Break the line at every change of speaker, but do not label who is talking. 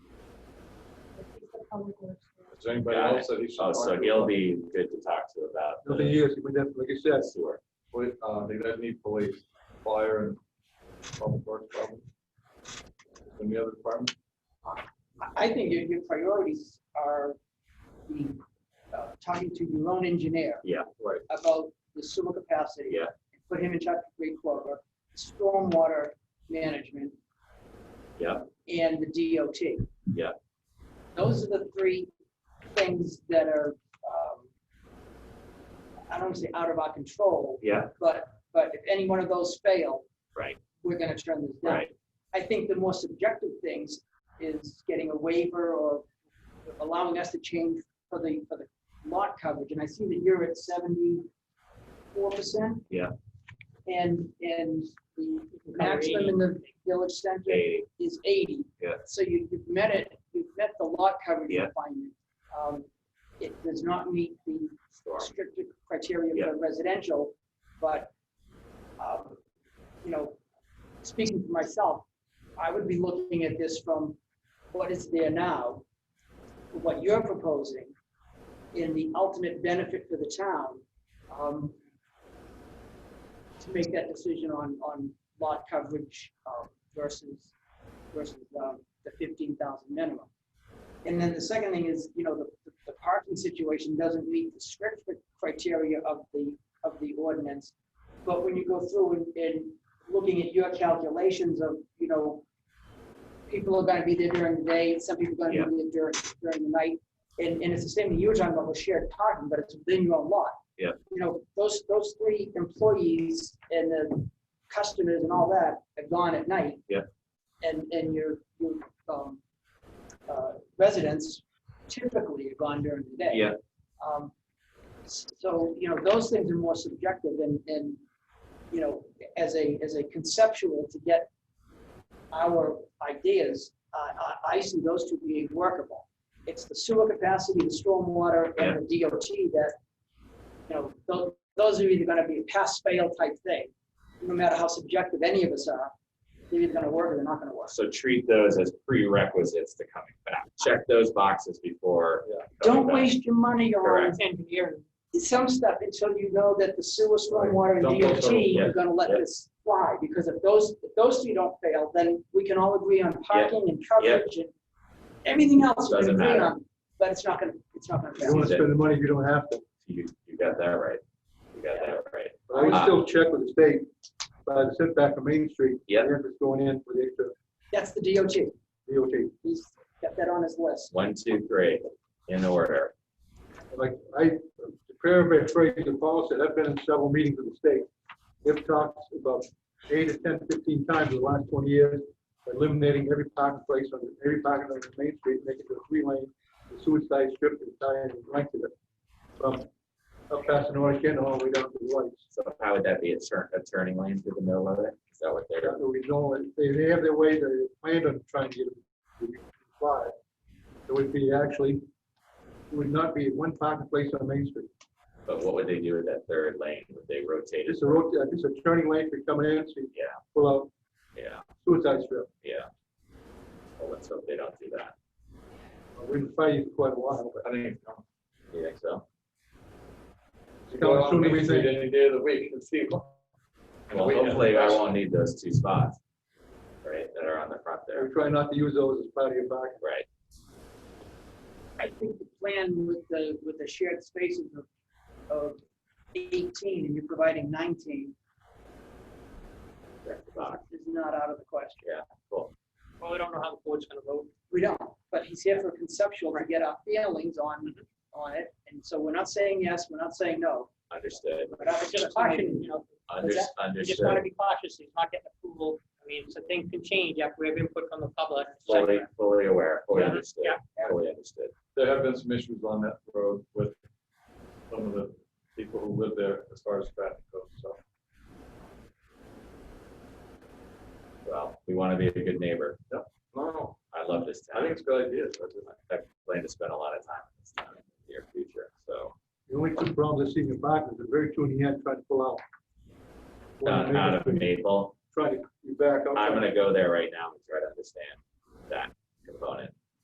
Public Works.
Is there anybody
Got
else that he should?
Oh, so
talk to?
he'll be good to talk to about.
It'll be
the-
years, we definitely, like you said,
Sewer.
we, uh, they don't need police, fire and public works probably. Any other department?
I- I think your, your priorities are the, uh, talking to your own engineer
Yeah,
Right.
about the sewer capacity.
Yeah.
Put him in charge of Great Clover, stormwater management.
Yeah.
And the DOT.
Yeah.
Those are the three things that are, um, I don't wanna say out of our control,
yeah,
but, but if any one of those fail.
Right.
We're gonna turn this down.
right.
I think the more subjective things is getting a waiver or allowing us to change for the, for the lot coverage. And I see that you're at seventy-four percent.
Yeah.
And, and the maximum in the village center
They,
is eighty.
Yeah.
So you, you've met it, you've met the lot coverage
Yeah.
requirement. Um, It does not meet the
storm.
stricter criteria for residential, but, um, you know, speaking for myself, I would be looking at this from what is there now, what you're proposing, and the ultimate benefit for the town, um, to make that decision on, on lot coverage um, versus, versus um, the fifteen thousand minimum. And then the second thing is, you know, the, the parking situation doesn't meet the strict criteria of the, of the ordinance. But when you go through and, and looking at your calculations of, you know, people are gonna be there during the day, some people are gonna be there during, during the night. And, and it's the same thing you were talking about with shared parking, but it's within your lot.
Yeah.
You know, those, those three employees and the customers and all that are gone at night.
Yeah.
And, and your, your, um, uh, residents typically are gone during the day.
Yeah.
Um, s- So, you know, those things are more subjective and, and, you know, as a, as a conceptual to get our ideas, uh, I, I, I see those two being workable. It's the sewer capacity, the stormwater and the DOT that, you know, those, those are either gonna be a pass fail type thing. No matter how subjective any of us are, they're either gonna work or they're not gonna work.
So treat those as prerequisites to coming back. Check those boxes before.
Yeah.
coming
Don't
back.
waste your money on
Correct.
engineering. Some stuff until you know that the sewer, stormwater,
Don't
and
go
DOT,
through,
yeah,
you're gonna let
yeah.
this fly, because if those, if those two don't fail, then we can all agree on parking and coverage and everything else we
Doesn't
can agree
matter.
on, but it's not gonna, it's not gonna
You don't
fail.
want to spend the money if you don't have to.
You, you got that right. You got that right.
But I would
Uh,
still check with the state, by the setback from Main Street.
Yeah.
If it's going in for the extra
That's the DOT,
DOT.
he's got that on his list.
One, two, three, in order.
Like, I, to paraphrase the Paul said, I've been in several meetings with the state. They've talked about eight to ten, fifteen times in the last twenty years, eliminating every parking place on, every parking lot on Main Street, making it a three lane, the suicide strip, and tie in the length of it. From up past the North End all the way down to the lights.
So how would that be a turn, a turning lane through the middle of it? Is that what they're?
So we know, it. they, they have their way, they planned on trying to get it to comply. It would be actually, it would not be one parking place on Main Street.
But what would they do with that third lane? Would they rotate it?
It's a road, uh, it's a turning lane for coming in, so you
Yeah.
pull out
Yeah,
suicide strip.
yeah. Well, let's hope they don't do that.
We've been fighting for quite a while, but
I think. You think so?
it's coming sooner than we think.
Any day of the week and see.
Well, hopefully I won't need those two spots, right, that are on the front
We
there,
try not to use those as part of your parking.
right?
I think the plan with the, with the shared spaces of, of eighteen, and you're providing nineteen,
That's the box,
is not out of the question.
cool.
Well, we don't know how the board's gonna vote.
We don't, but he's here for conceptual to get our feelings on,
Mm-hmm.
on it. And so we're not saying yes, we're not saying no,
Understood,
but I was just cautioning, you know,
that? You
under,
just wanna
understood,
be cautious, he's not getting approval, I mean, so things can change after we have input from the public. et cetera.
fully, fully aware, fully
Yeah,
understood,
yeah.
fully understood.
There have been some issues on that road with some of the people who live there as far as traffic goes, so.
Well, we want to be a good neighbor.
No,
I love this town.
I think it's a good idea.
I plan to spend a lot of time in this town in the near future, so.
The only two problems I see in the park is the very two in the end trying to pull out.
Down uh, out of Maple,
Try to, you back up.
I'm gonna go there right now and try to understand that component.